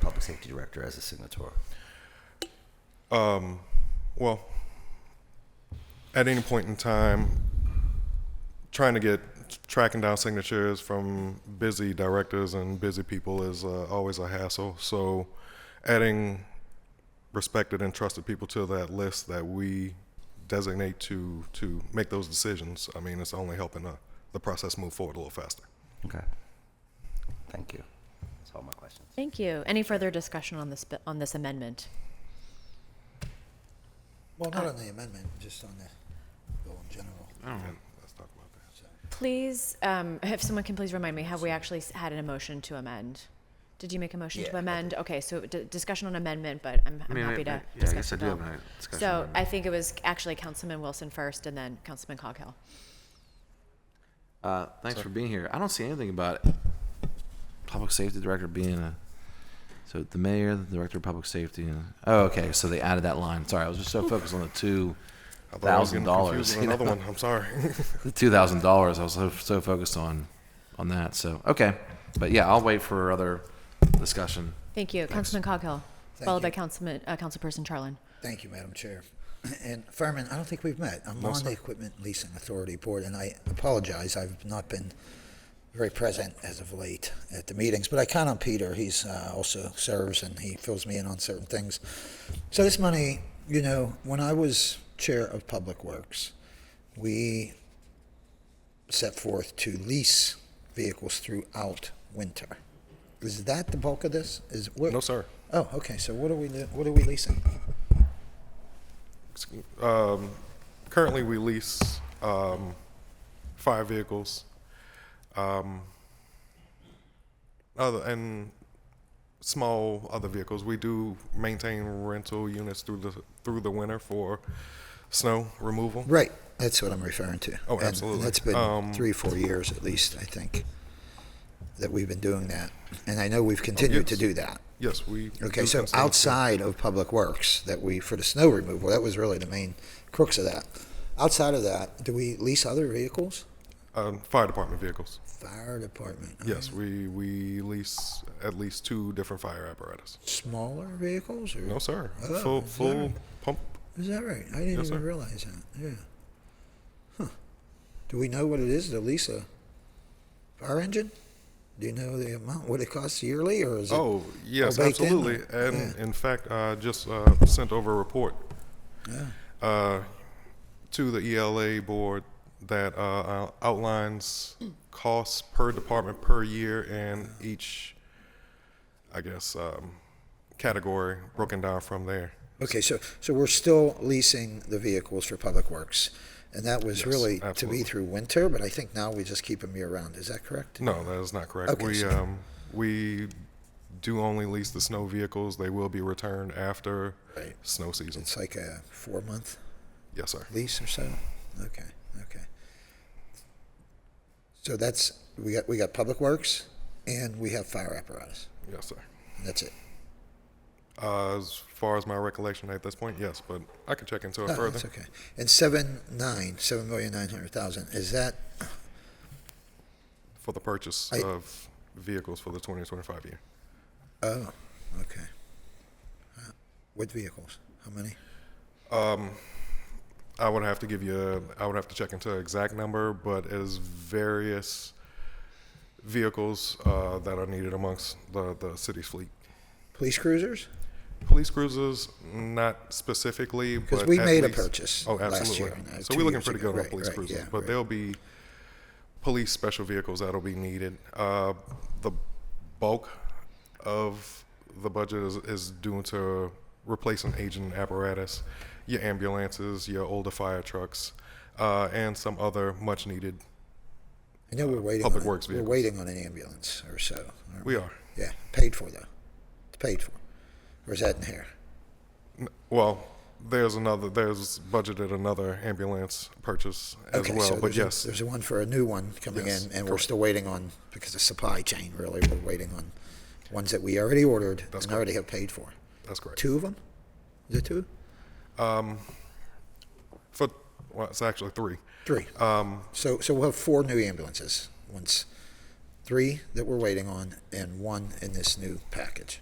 public safety director as a signator? Well, at any point in time, trying to get tracking down signatures from busy directors and busy people is uh, always a hassle. So, adding respected and trusted people to that list that we designate to to make those decisions, I mean, it's only helping uh, the process move forward a little faster. Okay. Thank you. That's all my questions. Thank you. Any further discussion on this, bi- on this amendment? Well, not on the amendment, just on the bill in general. And let's talk about that. Please, um, if someone can please remind me, have we actually s- had an motion to amend? Did you make a motion Yeah, to I amend? Okay, so d- discussion on amendment, but I'm, I'm mean, I- happy I- to yeah, I discuss guess the I do bill. have a discussion on So I amendment. think it was actually Councilman Wilson first, and then Councilman Coghill. Uh, thanks for being here. I don't see anything about public safety director being a. So the mayor, the director of public safety. And, oh, okay. So they added that line. Sorry, I was just so focused on the two I thought I was thousand getting confused dollars. with Another one. I'm sorry. The two thousand dollars. I was so, so focused on on that. So okay, but yeah, I'll wait for other discussion. Thank you, Councilman Coghill, Thank followed by you. Councilman, uh, Councilperson Charlin. Thank you, Madam Chair. And Furman, I don't think we've met. I'm on the Equipment Leasing Authority Board, and I apologize, I've not been very present as of late at the meetings, but I count on Peter. He's uh, also serves and he fills me in on certain things. So this money, you know, when I was Chair of Public Works, we set forth to lease vehicles throughout winter. Is that the bulk of this? Is what? no, sir. Oh, okay. So what are we what are we leasing? Um, currently, we lease um, five vehicles. Um, other and small other vehicles. We do maintain rental units through the through the winter for snow removal. Right. That's what I'm referring to. Oh, And absolutely. That's been Um, three, four years at least, I think, that we've been doing that. And I know we've continued to Oh, yes. do that. Yes, we. Okay, do so constantly- outside of Public Works, that we, for the snow removal, that was really the main crux of that. Outside of that, do we lease other vehicles? um, fire department vehicles. Fire department. Yes, we we lease at least two different fire apparatus. Smaller vehicles or? No, sir. Oh, full is that full right? pump. Is that right? I didn't Yes, sir. even realize that. Yeah. Huh. Do we know what it is to lease a fire engine? Do you know the amount? What it costs yearly, or is it? Oh yes, baked in? absolutely. And in fact, I just uh, sent over a report Yeah. uh, to the ELA board that uh, outlines costs per department per year and each, I guess, um, category broken down from there. Okay, so so we're still leasing the vehicles for public works, and that was Yes, really to absolutely. be through winter. But I think now we just keep them year round. Is that correct? No, that is not correct. Okay, we so- um, we do only lease the snow vehicles. They will be returned after Right. snow season. It's like a four month Yes, sir. lease or so. Okay, okay. So that's we got we got public works, and we have fire apparatus. Yes, sir. And that's it. Uh, as far as my recollection at this point, yes, but I can check into it Oh, further. That's okay. And seven nine, seven million nine hundred thousand. Is that for the purchase I- of vehicles for the 2025 year. oh, okay. Uh, What vehicles? How many? I would have to give you, a, I would have to check into the exact number, but it is various vehicles uh, that are needed amongst the, the city's fleet. Police cruisers? Police cruisers, not specifically, Because but we at made a least- purchase Oh, last absolutely. year, no, so two we're looking years pretty ago. good on Right, police right, cruisers, yeah, but right. there'll be police special vehicles that'll be needed. Uh, the bulk of the budget is, is due to replacing aging apparatus, your ambulances, your older fire trucks, uh, and some other much needed. I know we're waiting. Uh, public on a- works vehicles. We're waiting on an ambulance or so. aren't We are. Yeah, paid for though. It's paid for. Or is that in here? Well, there's another, there's budgeted another ambulance purchase as Okay, well, so but there's a- yes. there's a one for a new one coming Yes, in, and we're still waiting on because of supply chain. Really, we're waiting on ones that we already ordered and already have paid for. That's correct. Two of them? Is it two? For, well, it's actually three. Three. Um, so, so we'll have four new ambulances. Once, three that we're waiting on, and one in this new package.